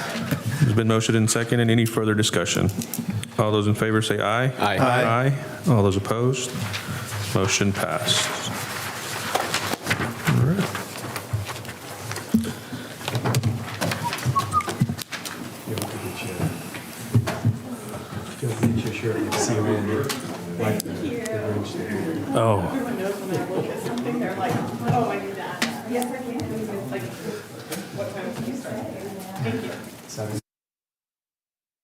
It's been motioned and seconded. Any further discussion? All those in favor say aye. Aye. Aye. All those opposed? Motion passed. All right. Oh.